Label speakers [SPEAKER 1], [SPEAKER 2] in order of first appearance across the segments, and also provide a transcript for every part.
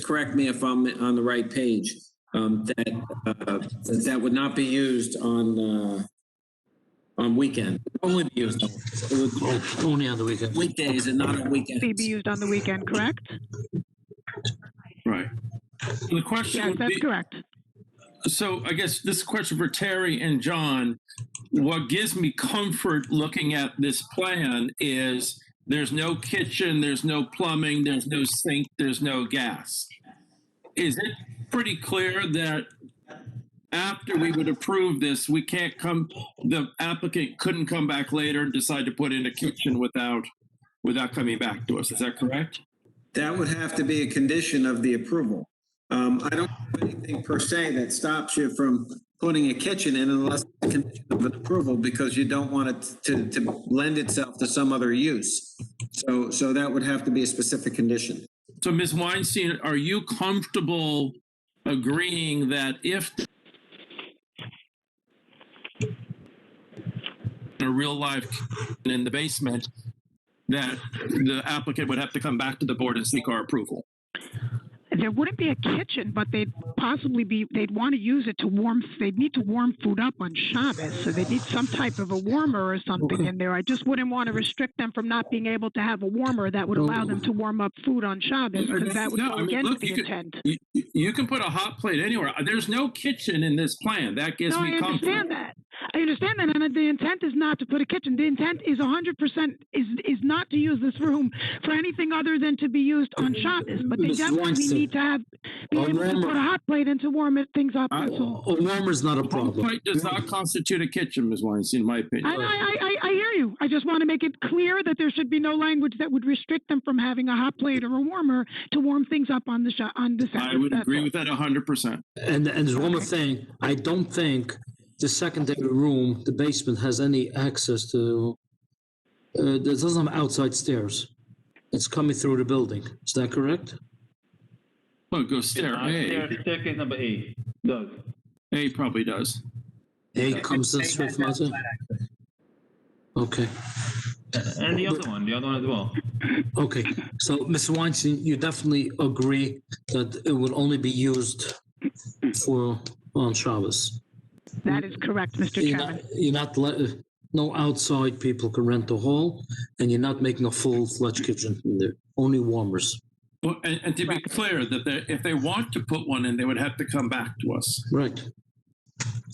[SPEAKER 1] correct me if I'm on the right page, um, that, uh, that that would not be used on, uh, on weekend. Only be used, on- it would
[SPEAKER 2] Oh, Only on the weekend.
[SPEAKER 1] be weekdays and not on
[SPEAKER 3] be
[SPEAKER 1] weekends.
[SPEAKER 3] used on the weekend, correct?
[SPEAKER 4] Right. The question
[SPEAKER 3] Yes,
[SPEAKER 4] would
[SPEAKER 3] that's
[SPEAKER 4] be,
[SPEAKER 3] correct.
[SPEAKER 4] so I guess this question for Terry and John, what gives me comfort looking at this plan is there's no kitchen, there's no plumbing, there's no sink, there's no gas. Is it pretty clear that after we would approve this, we can't come, the applicant couldn't come back later and decide to put in a kitchen without, without coming back to us? Is that correct?
[SPEAKER 1] That would have to be a condition of the approval. Um, I don't have anything per se that stops you from putting a kitchen in unless it's a condition of an approval because you don't want it to, to lend itself to some other use. So, so that would have to be a specific condition.
[SPEAKER 4] So, Ms. Weinstein, are you comfortable agreeing that if in a real life in the basement, that the applicant would have to come back to the board and seek our approval?
[SPEAKER 3] There wouldn't be a kitchen, but they'd possibly be, they'd want to use it to warm, they'd need to warm food up on Shabbos. So they'd need some type of a warmer or something in there. I just wouldn't want to restrict them from not being able to have a warmer that would allow them to warm up food on Shabbos because that would
[SPEAKER 4] No,
[SPEAKER 3] go
[SPEAKER 4] I mean,
[SPEAKER 3] against
[SPEAKER 4] look,
[SPEAKER 3] the
[SPEAKER 4] you could-
[SPEAKER 3] intent.
[SPEAKER 4] You, you can put a hot plate anywhere. There's no kitchen in this plan. That gives
[SPEAKER 3] No, I
[SPEAKER 4] me comfort.
[SPEAKER 3] understand that. I understand that, and the intent is not to put a kitchen. The intent is 100 percent is is not to use this room for anything other than to be used on Shabbos. But they
[SPEAKER 2] Ms.
[SPEAKER 3] definitely
[SPEAKER 2] Weinstein,
[SPEAKER 3] need to have be
[SPEAKER 2] a
[SPEAKER 3] able to
[SPEAKER 2] warmer-
[SPEAKER 3] put a hot plate and to warm it things up.
[SPEAKER 2] A
[SPEAKER 3] That's all.
[SPEAKER 2] a warmer's not a
[SPEAKER 4] Hot
[SPEAKER 2] problem.
[SPEAKER 4] plate does not constitute a kitchen, Ms. Weinstein, in my opinion.
[SPEAKER 3] And I, I, I, I hear you. I just want to make it clear that there should be no language that would restrict them from having a hot plate or a warmer to warm things up on the sha- on the Sabbath.
[SPEAKER 4] I would
[SPEAKER 3] That's
[SPEAKER 4] agree
[SPEAKER 3] all.
[SPEAKER 4] with that 100%.
[SPEAKER 2] And, and there's one more thing, I don't think the secondary room, the basement, has any access to, uh, that doesn't have outside stairs. It's coming through the building, is that correct?
[SPEAKER 4] Well, go stare.
[SPEAKER 5] Uh,
[SPEAKER 4] A,
[SPEAKER 5] stair- Staircase number eight, Doug.
[SPEAKER 4] A probably does.
[SPEAKER 2] A comes in Swift Mountain? Okay,
[SPEAKER 5] And the other one, the other one as well.
[SPEAKER 2] okay, so Mr. Weinstein, you definitely agree that it will only be used for, on Shabbos?
[SPEAKER 3] That is correct, Mr.
[SPEAKER 2] You're
[SPEAKER 3] Chairman.
[SPEAKER 2] not, you're not let, no outside people can rent the hall, and you're not making a full-fledged kitchen in there, only warmers.
[SPEAKER 4] Well, and, and to be clear, that they, if they want to put one in, they would have to come back to us.
[SPEAKER 2] Right.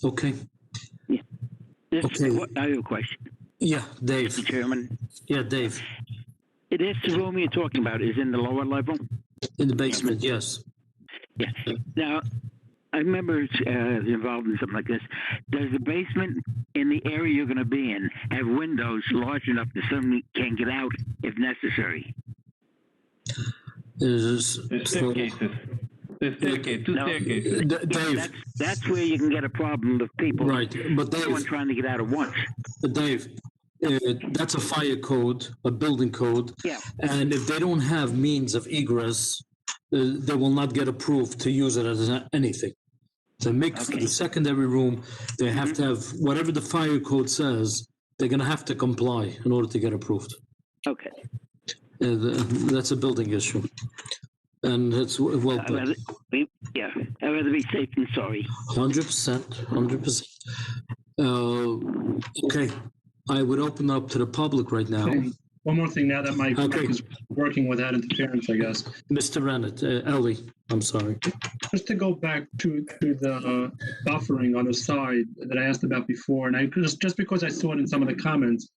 [SPEAKER 2] Okay,
[SPEAKER 6] This,
[SPEAKER 2] Okay.
[SPEAKER 6] what, I have a question,
[SPEAKER 2] yeah, Dave,
[SPEAKER 6] Mr. Chairman.
[SPEAKER 2] yeah, Dave,
[SPEAKER 6] This room you're talking about is in the lower level?
[SPEAKER 2] in the basement, yes.
[SPEAKER 6] Now, I remember uh, involved in something like this. Does the basement in the area you're going to be in have windows large enough that someone can get out if necessary?
[SPEAKER 5] There's
[SPEAKER 2] There's, so- D-
[SPEAKER 5] staircases. There's staircase, two
[SPEAKER 6] No.
[SPEAKER 5] staircases.
[SPEAKER 2] Dave,
[SPEAKER 6] That's, that's where you can get a problem with people.
[SPEAKER 2] right, but
[SPEAKER 6] Everyone
[SPEAKER 2] Dave,
[SPEAKER 6] trying to get out at once.
[SPEAKER 2] Dave, uh, that's a fire code, a building code,
[SPEAKER 6] Yeah.
[SPEAKER 2] and if they don't have means of egress, uh, they will not get approved to use it as a- anything. To make
[SPEAKER 6] Okay.
[SPEAKER 2] the secondary room, they have to have, whatever the fire code says, they're gonna have to comply in order to get approved.
[SPEAKER 6] Okay.
[SPEAKER 2] Uh, th- That's a building issue. And it's w- well
[SPEAKER 6] I'd
[SPEAKER 2] put,
[SPEAKER 6] rather be, yeah. I'd rather be safe than sorry.
[SPEAKER 2] hundred percent, hundred percent. Uh, Okay, I would open up to the public right now.
[SPEAKER 7] Okay. One more thing now that my mic
[SPEAKER 2] Okay.
[SPEAKER 7] is working without interference, I guess.
[SPEAKER 2] Mr. Rennet, uh, Ellie, I'm sorry.
[SPEAKER 7] Just to go back to, to the uh, buffering on the side that I asked about before, and I just, just because I saw it in some of the comments,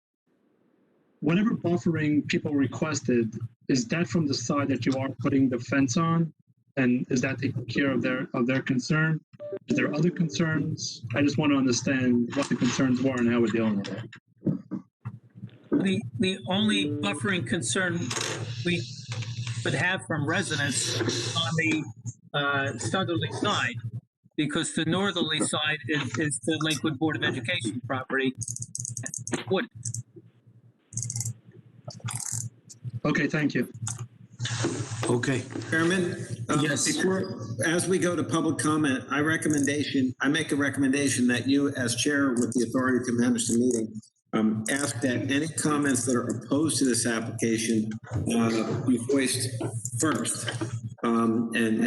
[SPEAKER 7] whatever buffering people requested, is that from the side that you are putting the fence on? And is that taking care of their of their concern? Is there other concerns? I just want to understand what the concerns were and how we're dealing with it.
[SPEAKER 8] The, the only buffering concern um, we would have from residents on the uh, southerly side, because the northerly side is, is the Lakewood Board of Education property. Would,
[SPEAKER 7] Okay, thank you.
[SPEAKER 2] Okay.
[SPEAKER 1] Chairman? um,
[SPEAKER 2] Yes.
[SPEAKER 1] Before, as we go to public comment, I recommendation, I make a recommendation that you, as chair with the authority to manage the meeting, um, ask that any comments that are opposed to this application, uh, be voiced first. um, and, and